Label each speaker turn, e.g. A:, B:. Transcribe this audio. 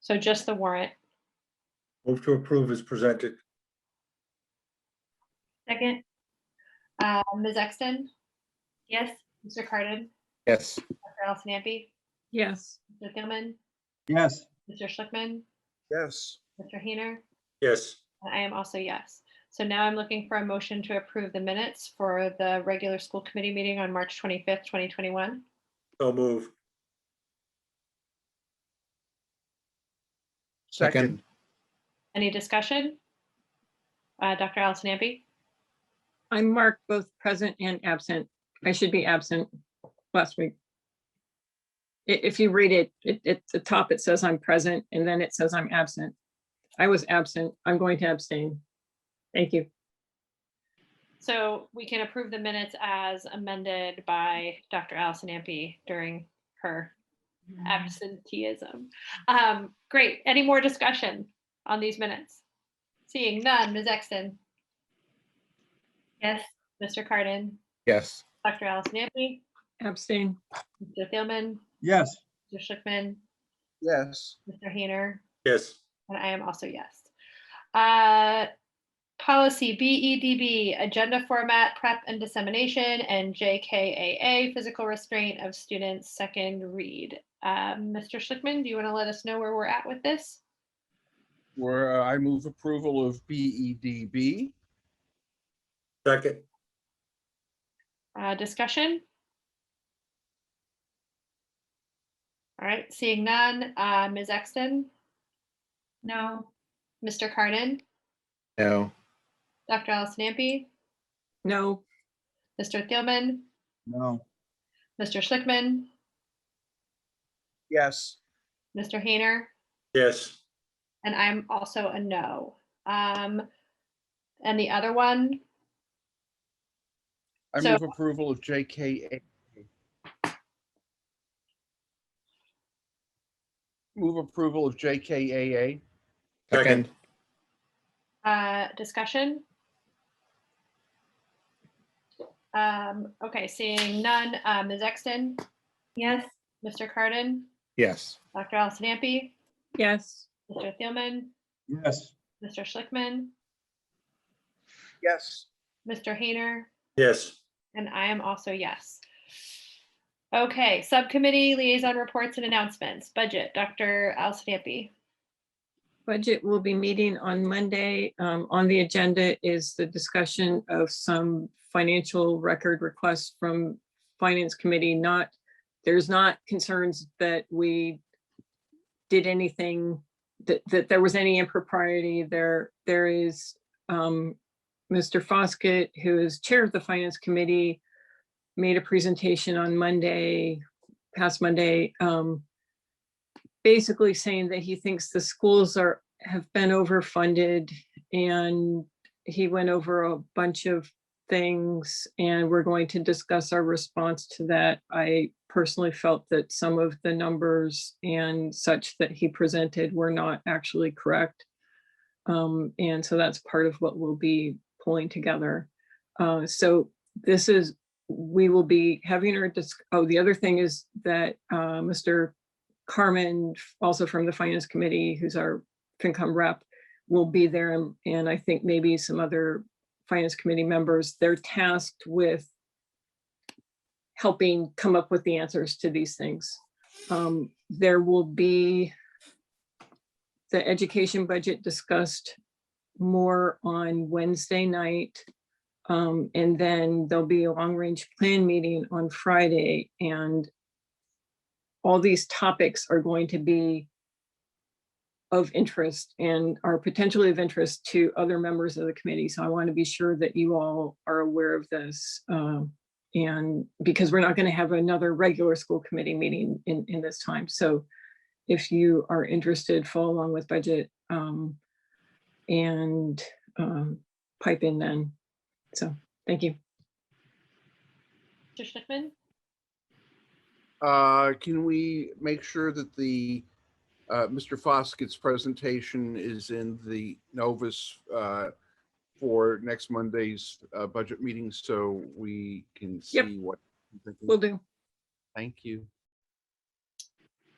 A: So just the warrant.
B: Move to approve is presented.
A: Second. Uh, Ms. Exton? Yes. Mr. Carden?
C: Yes.
A: Dr. Allison Ampe?
D: yes,
A: Mr. Gilman?
E: yes,
A: Mr. Schlickman?
C: Yes.
A: Mr. Hayner?
B: Yes,
A: And I am also yes. So now I'm looking for a motion to approve the minutes for the regular school committee meeting on March 25th, 2021.
B: so move.
C: Second.
A: Any discussion? Uh, Dr. Allison Ampe?
D: I marked both present and absent. I should be absent last week. I- if you read it, it, at the top, it says I'm present and then it says I'm absent. I was absent. I'm going to abstain. Thank you.
A: So we can approve the minutes as amended by Dr. Allison Ampe during her absenteeism. Um, great. Any more discussion on these minutes? Seeing none, Ms. Exton? Yes. Mr. Carden?
C: Yes.
A: Dr. Allison Ampe?
D: Abstain,
A: Mr. Thielman?
E: yes,
A: Mr. Schlickman?
C: Yes.
A: Mr. Hayner?
B: Yes,
A: And I am also yes. Uh, Policy BEDB, Agenda Format Prep and Dissemination, and JKAA, Physical Restraint of Students, Second Read. Uh, Mr. Schlickman, do you want to let us know where we're at with this?
C: Where uh, I move approval of E BEDB.
B: second.
A: Uh, Discussion? All right, seeing none. Uh, Ms. Exton? No. Mr. Carden?
C: No.
A: Dr. Allison Ampe?
D: no,
A: Mr. Thielman?
E: no,
A: Mr. Schlickman?
C: Yes.
A: Mr. Hayner?
B: Yes,
A: And I'm also a no. Um, and the other one,
C: I
A: So-
C: move approval of JKA. Move approval of JKAA.
B: Second.
A: uh, discussion? Um, okay, seeing none, uh, Ms. Exton? Yes. Mr. Carden?
C: Yes.
A: Dr. Allison Ampe?
D: yes,
A: Mr. Thielman?
E: yes,
A: Mr. Schlickman?
C: Yes.
A: Mr. Hayner?
B: yes,
A: And I am also yes. Okay, subcommittee liaison reports and announcements, budget, Dr. Allison Ampe?
D: Budget will be meeting on Monday. Um, On the agenda is the discussion of some financial record requests from Finance Committee, not, there's not concerns that we did anything, that, that there was any impropriety. There, there is um, Mr. Foskett, who is Chair of the Finance Committee, made a presentation on Monday, past Monday, um, basically saying that he thinks the schools are, have been overfunded and he went over a bunch of things and we're going to discuss our response to that. I personally felt that some of the numbers and such that he presented were not actually correct. Um, and so that's part of what we'll be pulling together. Uh, so this is, we will be having our, dis- oh, the other thing is that, uh, Mr. Carmen, also from the Finance Committee, who's our FinCom rep, will be there, and- and I think maybe some other Finance Committee members. They're tasked with helping come up with the answers to these things. Um, There will be the education budget discussed more on Wednesday night. Um, And then there'll be a long-range plan meeting on Friday, and all these topics are going to be of interest and are potentially of interest to other members of the committee. So I want to be sure that you all are aware of this. um, And because we're not going to have another regular school committee meeting in, in this time. So if you are interested, follow along with budget um, and um, pipe in then. So, thank you.
A: Mr. Schlickman?
C: Uh, Can we make sure that the, uh, Mr. Foskett's presentation is in the Novus uh, for next Monday's uh, budget meeting so we can
D: Yep.
C: see what? I'm thinking?
D: Will do.
C: Thank you.